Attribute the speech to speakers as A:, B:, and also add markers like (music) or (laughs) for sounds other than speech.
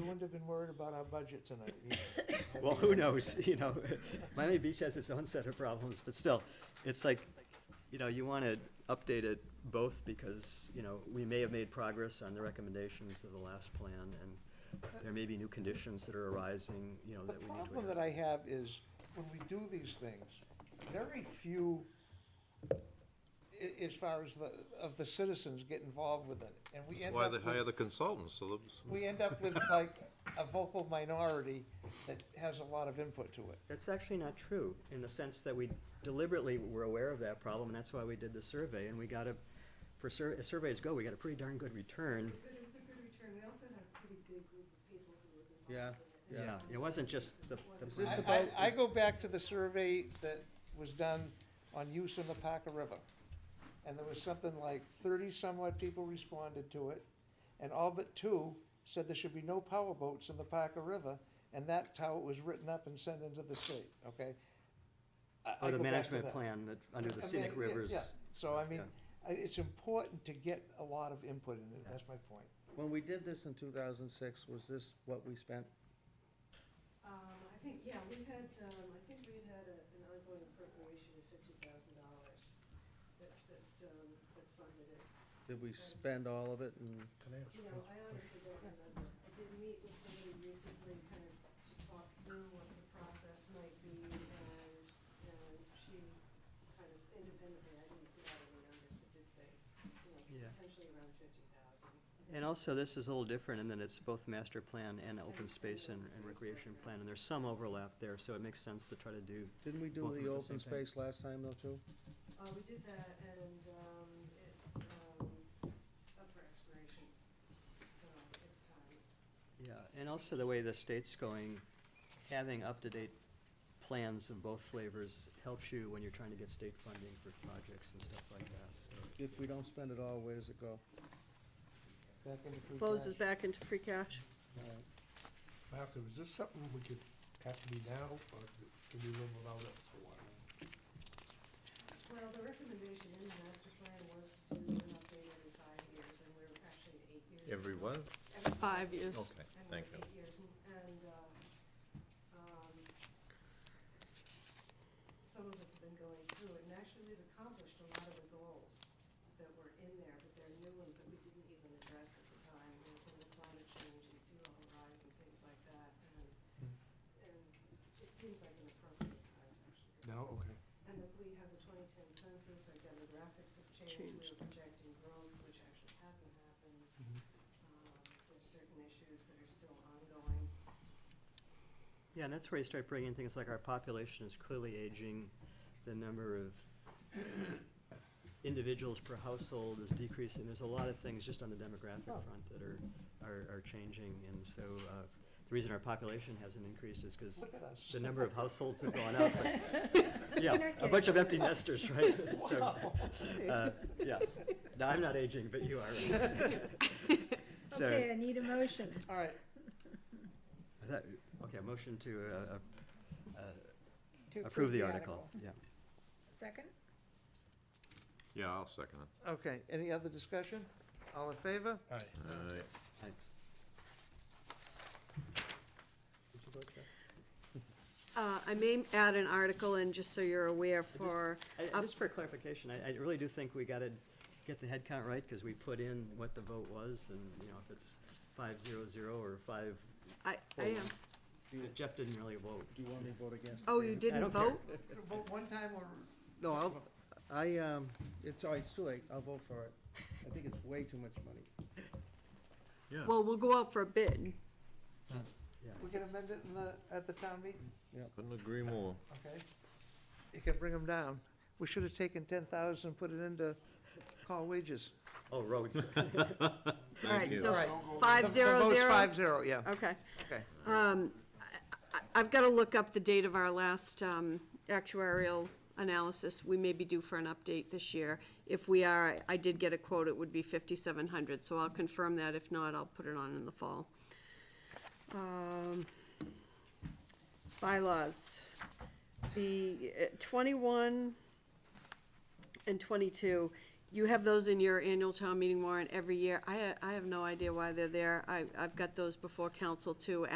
A: have been worried about our budget tonight. either.
B: (coughs) Well, who knows, you know, (laughs) Miami Beach has its own set of problems, but still, it's like, you know, you wanna update it both because, you know, we may have made progress on the recommendations of the last plan and there may be new conditions that are arising, you know,
A: The
B: that we need to address.
A: problem that I have is, when we do these things, very few, i- as far as the, of the citizens get involved with it, and we
C: That's
A: end
C: why
A: up
C: they
A: with.
C: hire the consultants, so that,
A: We end up with like a vocal minority that has a lot of input to it.
B: That's actually not true, in the sense that we deliberately were aware of that problem, and that's why we did the survey, and we got a, for sur- as surveys go, we got a pretty darn good return.
D: But it was a good return. We also had a pretty big group of people who was involved.
E: Yeah,
D: in
B: Yeah, it wasn't just the, the
D: Is
A: I,
D: this
B: brown-
A: I- I go back to the survey that was done on use in the Parker River. And there was something like thirty-somewhat people responded to it, and all but two said there should be no power boats in the Parker River, and that's how it was written up and sent into the state, okay? I- I
B: oh, the
A: go back to
B: management
A: that.
B: plan that, under the
A: I mean,
B: scenic
A: yeah,
B: rivers.
A: yeah. So, I mean,
B: yeah.
A: I- it's important to get a lot of input in it, that's my point.
E: When we did this in two thousand six, was this what we spent?
D: Um, I think, yeah, we had, um, I think we had a, an ongoing appropriation of fifty thousand dollars that, that, um, that funded it.
E: Did we spend all of it and?
D: You know, I honestly don't remember. I did meet with somebody recently kind of to talk through what the process might be and, and she kind of independently, I didn't get out any numbers, but did say, you know,
B: Yeah.
D: potentially around fifty thousand.
B: And also, this is a little different in that it's both master plan and open space and and recreation plan, and there's some overlap there, so it makes sense to try to do.
E: Didn't we
B: Both
E: do
B: of them
E: the
B: at the
E: open
B: same time.
E: space last time though too?
D: Uh, we did that and, um, it's, um, up for expiration, so it's time.
B: Yeah, and also the way the state's going, having up-to-date plans of both flavors helps you when you're trying to get state funding for projects and stuff like that, so.
E: If we don't spend it all, where does it go?
A: Back into free
F: Closes
A: cash.
F: back into free cash.
G: Martha, is this something we could, have to be now, or can we live without it for a while?
D: Well, the recommendation in the master plan was to do an update every five years and we're actually at eight years.
C: every
D: now.
C: one?
D: Every
F: Five years.
C: Okay,
D: And we're
C: thank you.
D: at eight years and, and, uh, um, some of us have been going through it and actually we've accomplished a lot of the goals that were in there, but there are new ones that we didn't even address at the time, you know, some of the climate change and sea level rise and things like that, and, and it seems like an appropriate time to actually. do it.
G: No, okay.
D: And that we have the twenty ten census, our demographics have changed,
F: Changed.
D: we're projecting growth, which actually hasn't happened.
G: Mm-hmm.
D: Um, there are certain issues that are still ongoing.
B: Yeah, and that's where you start bringing things like our population is clearly aging, the number of individuals per household is decreasing, there's a lot of things just on the demographic front that are, are, are changing, and so, uh, the reason our population hasn't increased is because
A: Look at us.
B: the number of households have gone (laughs) up. but- Yeah, a bunch of empty nesters, (laughs) right? So, uh, Yeah, no, I'm not aging, but you are. (laughs) So-
H: Okay, I need a motion.
A: All right,
B: I thought- Okay, a motion to uh, uh,
H: to
B: approve the article, yeah.
H: Second?
C: Yeah, I'll second it.
A: okay, any other discussion? All in favor?
G: All right.
C: All right.
B: I-
F: Uh, I may add an article in, just so you're aware, for,
B: I- I-
F: up-
B: Just for clarification, I, I really do think we gotta get the head count right, because we put in what the vote was, and, you know, if it's five zero zero or five,
F: I, I am,
B: Jeff didn't really vote.
E: Do you want me to vote against? it,
F: oh,
E: Dan?
F: you
B: I
F: didn't
B: don't care.
F: vote?
A: Vote one time or?
E: No, I'll, I, um, it's, all right, it's too late. I'll vote for it. I think it's way too much money.
C: Yeah.
F: Well, we'll go out for a bid.
A: We can amend it in the, at the town meeting,
C: Couldn't agree more.
A: okay? You can bring them down. We should have taken ten thousand and put it into call wages.
B: Oh, roads.
F: All right,
C: you.
F: so
A: The-
F: five
A: The
F: zero
A: vote's
F: zero,
A: five zero, yeah,
F: okay.
A: okay.
F: Um, I- I- I've got to look up the date of our last um, actuarial analysis. We may be due for an update this year. If we are, I did get a quote, it would be 5,700, so I'll confirm that. If not, I'll put it on in the fall. Um, Bylaws. The uh, 21 and 22 You have those in your annual town meeting warrant every year. I, I have no idea why they're there. I, I've got those before council too,